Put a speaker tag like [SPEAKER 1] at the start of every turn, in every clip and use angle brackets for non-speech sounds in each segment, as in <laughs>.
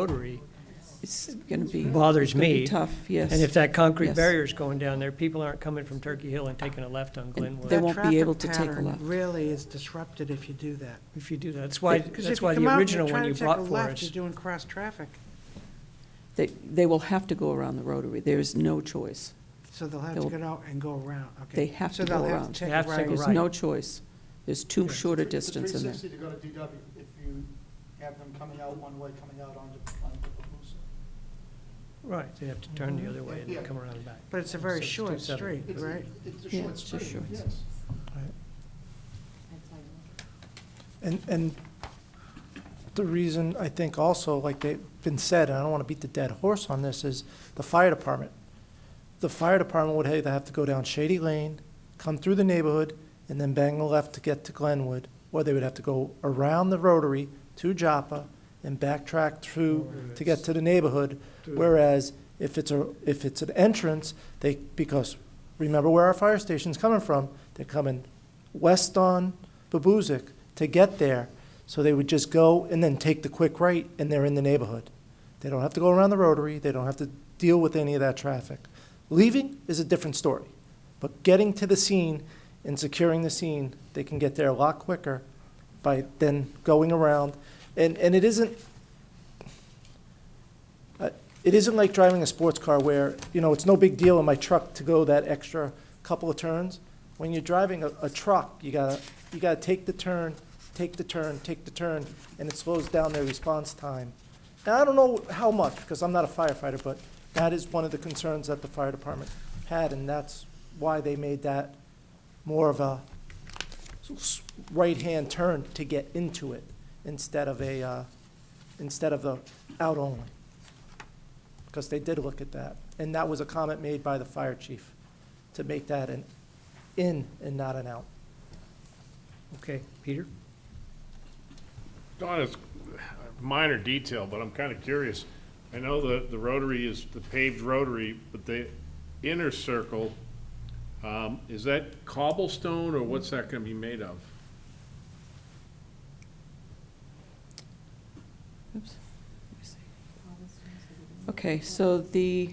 [SPEAKER 1] Rotary
[SPEAKER 2] It's going to be.
[SPEAKER 1] Bothers
[SPEAKER 2] it's gonna be
[SPEAKER 1] me.
[SPEAKER 2] Tough, yes.
[SPEAKER 1] And if that concrete
[SPEAKER 2] Yes.
[SPEAKER 1] barrier's going down there, people aren't coming from Turkey Hill and taking a left on
[SPEAKER 2] They
[SPEAKER 1] Glenwood.
[SPEAKER 2] won't be able to take a
[SPEAKER 3] That traffic
[SPEAKER 2] left.
[SPEAKER 3] pattern really is disrupted if you do that.
[SPEAKER 1] If you do that, that's why,
[SPEAKER 3] 'Cause if
[SPEAKER 1] that's
[SPEAKER 3] you
[SPEAKER 1] why
[SPEAKER 3] come
[SPEAKER 1] the
[SPEAKER 3] out and
[SPEAKER 1] original
[SPEAKER 3] you're
[SPEAKER 1] one you
[SPEAKER 3] trying to take
[SPEAKER 1] brought
[SPEAKER 3] a
[SPEAKER 1] for
[SPEAKER 3] left,
[SPEAKER 1] us.
[SPEAKER 3] You're doing cross-traffic,
[SPEAKER 2] They, they will have to go around the rotary. There is no choice.
[SPEAKER 3] so they'll have to
[SPEAKER 2] They'll-
[SPEAKER 3] get out and go around, okay.
[SPEAKER 2] They have to go
[SPEAKER 3] So they'll have
[SPEAKER 2] around.
[SPEAKER 3] to take
[SPEAKER 1] They have to
[SPEAKER 3] a
[SPEAKER 1] go
[SPEAKER 3] right.
[SPEAKER 2] There's
[SPEAKER 1] right.
[SPEAKER 2] no choice. There's too short a distance in there.
[SPEAKER 4] Three sixty to go to DW, if you have them coming out one way, coming out onto, onto Papusa.
[SPEAKER 1] Right, they have to turn the other way and then
[SPEAKER 4] Yeah.
[SPEAKER 1] come around back.
[SPEAKER 3] But it's a very
[SPEAKER 1] So it's
[SPEAKER 3] short
[SPEAKER 1] 270.
[SPEAKER 3] street,
[SPEAKER 4] It's a-
[SPEAKER 3] right?
[SPEAKER 4] It's a
[SPEAKER 2] Yeah,
[SPEAKER 4] short
[SPEAKER 2] it's a
[SPEAKER 4] street,
[SPEAKER 2] short-
[SPEAKER 4] yes.
[SPEAKER 5] And, and the reason, I think also, like they've been said, and I don't want to beat the dead horse on this, is the fire department. The fire department would either have to go down Shady Lane, come through the neighborhood, and then bang the left to get to Glenwood, or they would have to go around the rotary to Joppa and backtrack through to get to the neighborhood. Whereas if it's a, if it's an entrance, they, because remember where our fire station's coming from, they're coming west on Babuzik to get there. So they would just go and then take the quick right and they're in the neighborhood. They don't have to go around the rotary, they don't have to deal with any of that traffic. Leaving is a different story, but getting to the scene and securing the scene, they can get there a lot quicker by then going around. And, and it isn't, uh, it isn't like driving a sports car where, you know, it's no big deal in my truck to go that extra couple of turns. When you're driving a, a truck, you gotta, you gotta take the turn, take the turn, take the turn, and it slows down their response time. And I don't know how much, because I'm not a firefighter, but that is one of the concerns that the fire department had, and that's why they made that more of a s- s- right-hand turn to get into it instead of a, uh, instead of the out only because they did look at that. And that was a comment made by the fire chief, to make that an in and not an out.
[SPEAKER 1] Okay, Peter?
[SPEAKER 6] Don, it's a minor detail, but I'm kind of curious. I know the, the rotary is the paved rotary, but the inner circle, um, is that cobblestone or what's that gonna be made of?
[SPEAKER 2] Oops. Let me see. Okay, so the,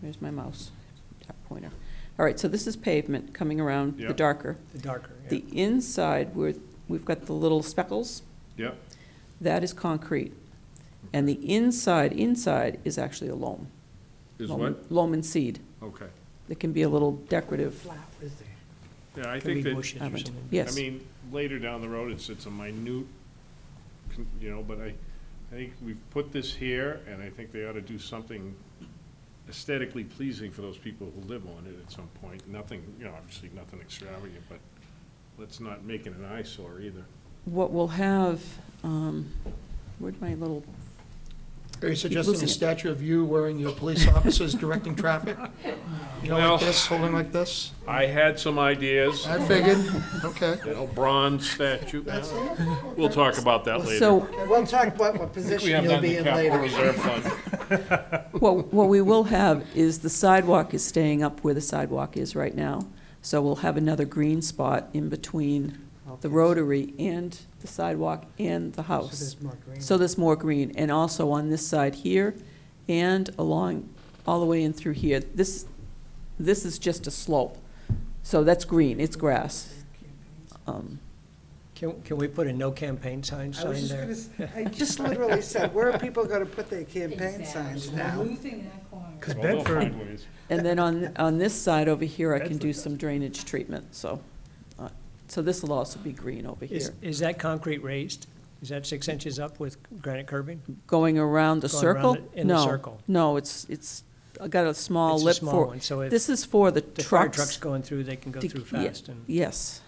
[SPEAKER 2] where's my mouse? Dark Pointer. All right, so this is pavement coming around,
[SPEAKER 6] Yeah.
[SPEAKER 2] the darker.
[SPEAKER 1] The darker, yeah.
[SPEAKER 2] The inside, where we've got the little speckles,
[SPEAKER 6] Yep,
[SPEAKER 2] that is concrete. And the inside, inside is actually a loam.
[SPEAKER 6] is
[SPEAKER 2] loam-
[SPEAKER 6] what?
[SPEAKER 2] Loam and seed.
[SPEAKER 6] Okay.
[SPEAKER 2] It can be a little decorative.
[SPEAKER 3] Flat, is there?
[SPEAKER 6] Yeah, I
[SPEAKER 1] Could be
[SPEAKER 6] think that,
[SPEAKER 1] bushes or
[SPEAKER 2] haven't-
[SPEAKER 1] something.
[SPEAKER 6] I
[SPEAKER 2] Yes,
[SPEAKER 6] mean, later down the road, it's, it's a minute, con- you know, but I, I think we've put this here and I think they ought to do something aesthetically pleasing for those people who live on it at some point. Nothing, you know, obviously nothing extravagant, but let's not make it an eyesore either.
[SPEAKER 2] what we'll have, um, where'd my little,
[SPEAKER 4] Are you suggesting
[SPEAKER 2] losing
[SPEAKER 4] a
[SPEAKER 2] it.
[SPEAKER 4] statue of you wearing your
[SPEAKER 2] <laughs>
[SPEAKER 4] police officers directing traffic? You know,
[SPEAKER 6] Well-
[SPEAKER 4] like this, holding like this?
[SPEAKER 6] I had some ideas,
[SPEAKER 4] I figured, okay.
[SPEAKER 6] you know, bronze statue. We'll talk about that later.
[SPEAKER 2] so,
[SPEAKER 3] We'll talk about what
[SPEAKER 6] I think we
[SPEAKER 3] position
[SPEAKER 6] have
[SPEAKER 3] you'll
[SPEAKER 6] that
[SPEAKER 3] be
[SPEAKER 6] in the
[SPEAKER 3] in
[SPEAKER 6] capital
[SPEAKER 3] later.
[SPEAKER 6] reserve fund.
[SPEAKER 2] what, what we will have is the sidewalk is staying up where the sidewalk is right now. So we'll have another green spot in between the rotary and the sidewalk and the
[SPEAKER 3] So
[SPEAKER 2] house.
[SPEAKER 3] there's more green.
[SPEAKER 2] So there's more green, and also on this side here, and along, all the way in through here. This, this is just a slope, so that's green, it's grass. Um,
[SPEAKER 1] Can, can we put a no campaign sign
[SPEAKER 3] I was
[SPEAKER 1] sign
[SPEAKER 3] just
[SPEAKER 1] there?
[SPEAKER 3] gonna, s- <laughs> I just literally said, where are people gonna put their campaign signs now?
[SPEAKER 7] Losing that corner.
[SPEAKER 1] Because
[SPEAKER 6] Well, they'll
[SPEAKER 1] Bedford,
[SPEAKER 6] find ways.
[SPEAKER 2] And then on, on this side over here, I can do
[SPEAKER 1] That's-
[SPEAKER 2] some drainage treatment, so, uh, so this will also be green over
[SPEAKER 1] is,
[SPEAKER 2] here.
[SPEAKER 1] is that concrete raised? Is that six inches up with granite curbing?
[SPEAKER 2] Going around the
[SPEAKER 1] Going around
[SPEAKER 2] circle?
[SPEAKER 1] the- in the
[SPEAKER 2] No,
[SPEAKER 1] circle.
[SPEAKER 2] No, it's, it's, I got a small
[SPEAKER 1] It's a
[SPEAKER 2] lip
[SPEAKER 1] small
[SPEAKER 2] for,
[SPEAKER 1] one, So if
[SPEAKER 2] this is for the
[SPEAKER 1] the fire
[SPEAKER 2] trucks.
[SPEAKER 1] truck's going through, they can go
[SPEAKER 2] to-
[SPEAKER 1] through
[SPEAKER 2] yeah,
[SPEAKER 1] fast and.
[SPEAKER 2] Yes.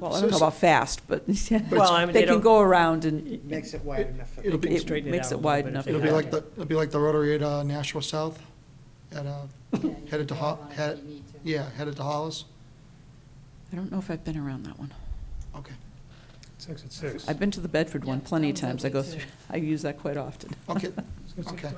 [SPEAKER 2] Well, I
[SPEAKER 4] So
[SPEAKER 2] don't know
[SPEAKER 4] it's-
[SPEAKER 2] about fast, but <laughs>
[SPEAKER 1] Well, I mean,
[SPEAKER 2] they
[SPEAKER 1] they
[SPEAKER 2] can
[SPEAKER 1] don't-
[SPEAKER 2] go around and
[SPEAKER 3] Makes it wide enough for
[SPEAKER 4] It'll be,
[SPEAKER 2] it
[SPEAKER 1] straighten it
[SPEAKER 2] makes
[SPEAKER 1] out a
[SPEAKER 2] it
[SPEAKER 1] little
[SPEAKER 2] wide
[SPEAKER 1] bit if
[SPEAKER 2] enough.
[SPEAKER 1] they
[SPEAKER 4] it'll
[SPEAKER 1] have
[SPEAKER 4] be like
[SPEAKER 1] to.
[SPEAKER 4] the, it'll be like the rotary at uh, Nashua South, at, uh, headed to, Ho- head- yeah, headed to Hollis,
[SPEAKER 2] I don't know if I've been around that one.
[SPEAKER 4] okay.
[SPEAKER 8] Six at six.
[SPEAKER 2] I've been to the Bedford one
[SPEAKER 7] Yeah,
[SPEAKER 2] plenty of
[SPEAKER 7] that was
[SPEAKER 2] times. I
[SPEAKER 7] lovely
[SPEAKER 2] go
[SPEAKER 7] too.
[SPEAKER 2] through, <laughs> I use that quite often.
[SPEAKER 4] Okay,
[SPEAKER 8] Six at
[SPEAKER 4] okay.
[SPEAKER 8] six.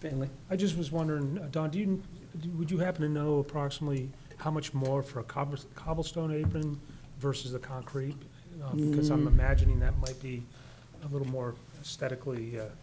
[SPEAKER 1] Finley?
[SPEAKER 8] I just was wondering, uh, Don, do you, do- would you happen to know approximately how much more for a cobbles- cobblestone apron versus the concrete? Uh, Because I'm imagining that might be a little more aesthetically, uh,